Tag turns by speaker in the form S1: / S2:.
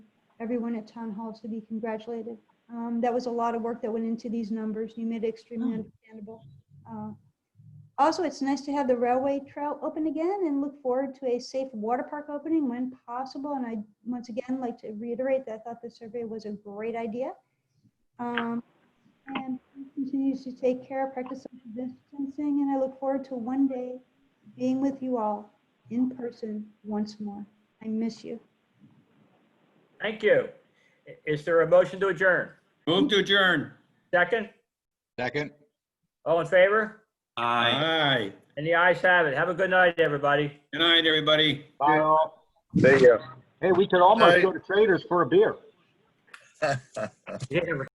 S1: everyone at town hall to be congratulated. Um, That was a lot of work that went into these numbers. You made it extremely
S2: Oh.
S1: understandable. Uh, Also, it's nice to have the railway trail open again and look forward to a safe water park opening when possible. And I, once again, like to reiterate that I thought the survey was a great idea. Um, And continues to take care, practice social distancing, and I look forward to one day being with you all in person once more. I miss you.
S3: Thank you. I- Is there a motion to adjourn?
S4: Move to adjourn.
S3: Second?
S5: Second.
S3: All in favor?
S4: Aye. Aye.
S3: And the ayes have it. Have a good night, everybody.
S4: Good night, everybody.
S3: Bye.
S6: Hey, we could almost go to Traders for a beer.
S3: Yeah.